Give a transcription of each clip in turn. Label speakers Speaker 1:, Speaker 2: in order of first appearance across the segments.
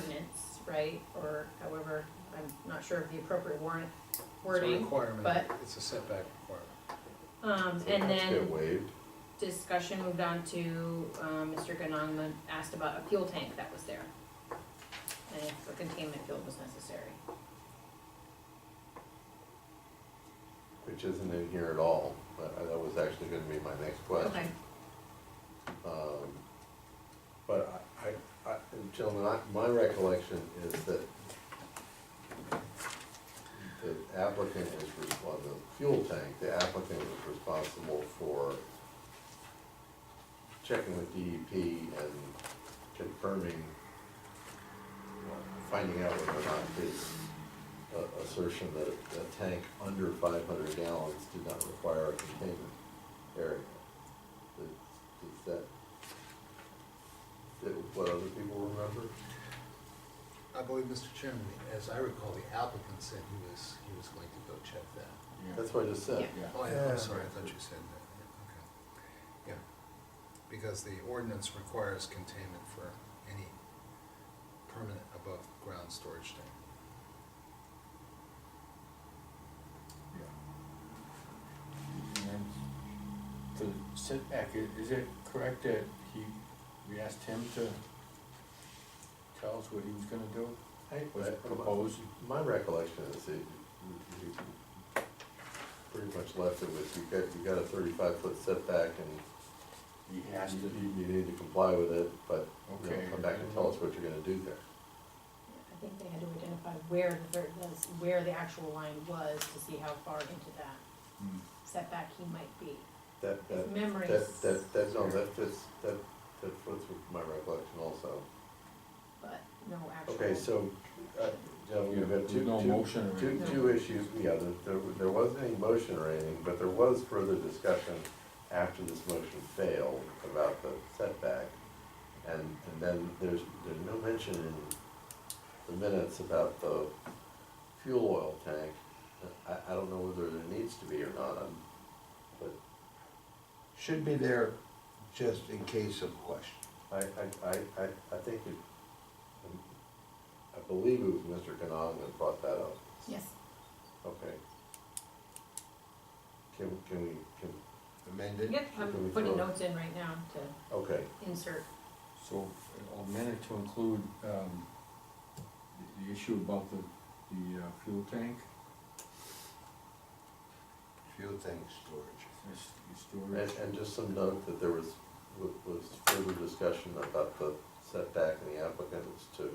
Speaker 1: ordinance, right? Or however, I'm not sure of the appropriate warrant,
Speaker 2: It's a
Speaker 1: wording.
Speaker 2: requirement,
Speaker 1: but-
Speaker 2: it's a setback requirement.
Speaker 1: Um,
Speaker 3: So
Speaker 1: and
Speaker 3: that's Get
Speaker 1: then
Speaker 3: waived,
Speaker 1: discussion moved on to, um, Mr. Ganong asked about a fuel tank that was there. And if a containment field was necessary.
Speaker 3: which isn't in here at all, but I- that was actually gonna be my next
Speaker 1: Okay,
Speaker 3: question. Um, But I, I, I- and gentlemen, I, my recollection is that the applicant was responsible, the fuel tank, the applicant was responsible for checking with DEP and confirming, well, finding out whether or not his uh, assertion that a tank under five hundred gallons did not require a containment area. Is is that, that what other people remember?
Speaker 4: I believe, Mr. Chairman, as I recall, the applicant said he was, he was going to go check that.
Speaker 3: That's what I just said.
Speaker 1: Yeah.
Speaker 4: Oh, I-
Speaker 2: Yeah.
Speaker 4: I'm sorry, I thought you said that, yeah, okay. Yeah, because the ordinance requires containment for any permanent above-ground storage tank.
Speaker 5: And then for the setback, i- is it correct that he, we asked him to tell us what he was gonna do? Was it proposed?
Speaker 3: My recollection is that you- you pretty much left it with, you got, you got a thirty-five foot setback and
Speaker 5: He has
Speaker 3: you,
Speaker 5: to,
Speaker 3: you you need to comply with it, but, you know,
Speaker 5: Okay.
Speaker 3: come back and tell us what you're gonna do there.
Speaker 1: I think they had to identify where the, ver- was- where the actual line was to see how far into that
Speaker 5: Hmm.
Speaker 1: setback he might be.
Speaker 3: That, that,
Speaker 1: His memory
Speaker 3: that, that, that, no,
Speaker 5: Sure.
Speaker 3: that fits, that, that fits with my recollection also.
Speaker 1: but no actual.
Speaker 3: Okay, so, uh, gentlemen, we've got
Speaker 5: there's
Speaker 3: two,
Speaker 5: no
Speaker 3: two,
Speaker 5: motion or
Speaker 3: two,
Speaker 5: anything.
Speaker 3: two issues, yeah, there, there, there wasn't any motion or anything, but there was further discussion after this motion failed about the setback. And, and then there's, there's no mention in the minutes about the fuel oil tank. I, I don't know whether there needs to be or not, I'm- but
Speaker 6: Should be there just in case of question.
Speaker 3: I, I, I, I, I think it, um, I believe it was Mr. Canong that brought that up.
Speaker 1: Yes,
Speaker 3: Okay. Can, can we, can,
Speaker 6: Amended?
Speaker 1: yep, I'm putting notes in right now to
Speaker 3: okay,
Speaker 1: insert,
Speaker 5: So, a minute to include, um, the, the issue about the, the uh, fuel tank,
Speaker 6: Fuel tank storage.
Speaker 5: this, the
Speaker 3: and,
Speaker 5: storage.
Speaker 3: and just some note that there was, wa- was further discussion about the setback and the applicant was to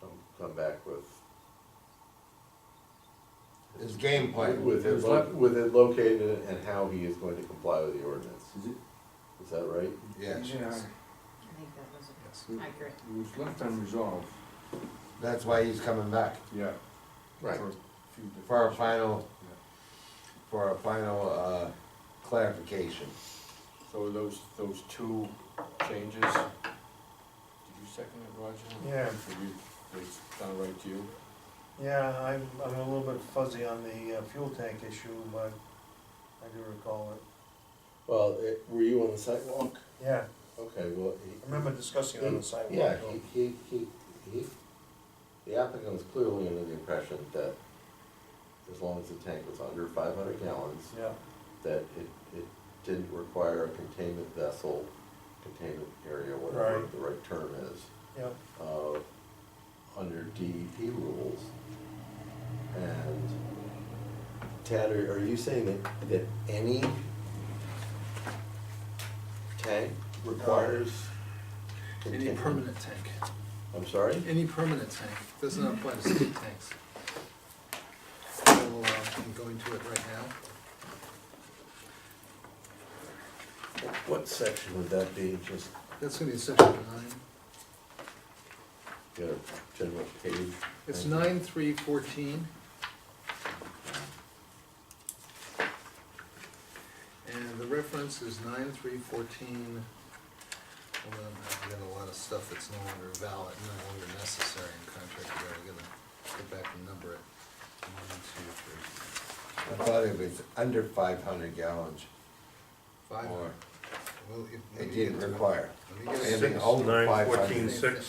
Speaker 3: come, come back with.
Speaker 6: His game plan.
Speaker 3: With it, lo- with it located and how he is going to comply with the ordinance,
Speaker 5: Is it?
Speaker 3: is that right?
Speaker 6: Yes,
Speaker 5: Yeah,
Speaker 1: I think that was
Speaker 4: Yes.
Speaker 1: accurate.
Speaker 5: it was left unresolved,
Speaker 6: that's why he's coming back
Speaker 5: yeah.
Speaker 3: Right.
Speaker 5: for a few different-
Speaker 6: for a final, for a final, uh, clarification.
Speaker 5: So those, those two changes, did you second it, Roger?
Speaker 2: Yeah.
Speaker 5: Did you, they sound right to you?
Speaker 2: Yeah, I'm, I'm a little bit fuzzy on the uh, fuel tank issue, but I do recall it.
Speaker 3: Well, it, were you on the sidewalk?
Speaker 2: Yeah,
Speaker 3: Okay, well. he-
Speaker 2: I remember discussing it on the sidewalk.
Speaker 3: Yeah, he, he, he, he, the applicant was clearly under the impression that as long as the tank was under five hundred gallons,
Speaker 2: Yeah,
Speaker 3: that it, it didn't require a containment vessel, containment area, whatever
Speaker 2: Right.
Speaker 3: the right term is,
Speaker 2: yeah,
Speaker 3: uh, under DEP rules. And Tad, are, are you saying that, that any tank requires?
Speaker 2: Uh,
Speaker 4: Any
Speaker 3: containment?
Speaker 4: permanent tank,
Speaker 3: I'm sorry?
Speaker 4: any permanent tank, doesn't apply to state tanks. I will, uh, I'm going to it right now.
Speaker 3: What section would that be? Just
Speaker 4: That's gonna be section nine.
Speaker 3: get a general page?
Speaker 4: It's
Speaker 3: Thank you.
Speaker 4: nine three fourteen. And the reference is nine three fourteen. Hold on, I've got a lot of stuff that's no longer valid, no longer necessary in contract, I gotta, gotta get back and number it. One, two, three,
Speaker 6: I thought it was under five hundred gallons
Speaker 4: five.
Speaker 6: or
Speaker 7: well, if.
Speaker 5: It didn't require.
Speaker 7: Let me get a
Speaker 5: Anything
Speaker 7: six.
Speaker 5: older than
Speaker 4: Nine,
Speaker 5: 500.
Speaker 4: fourteen, six.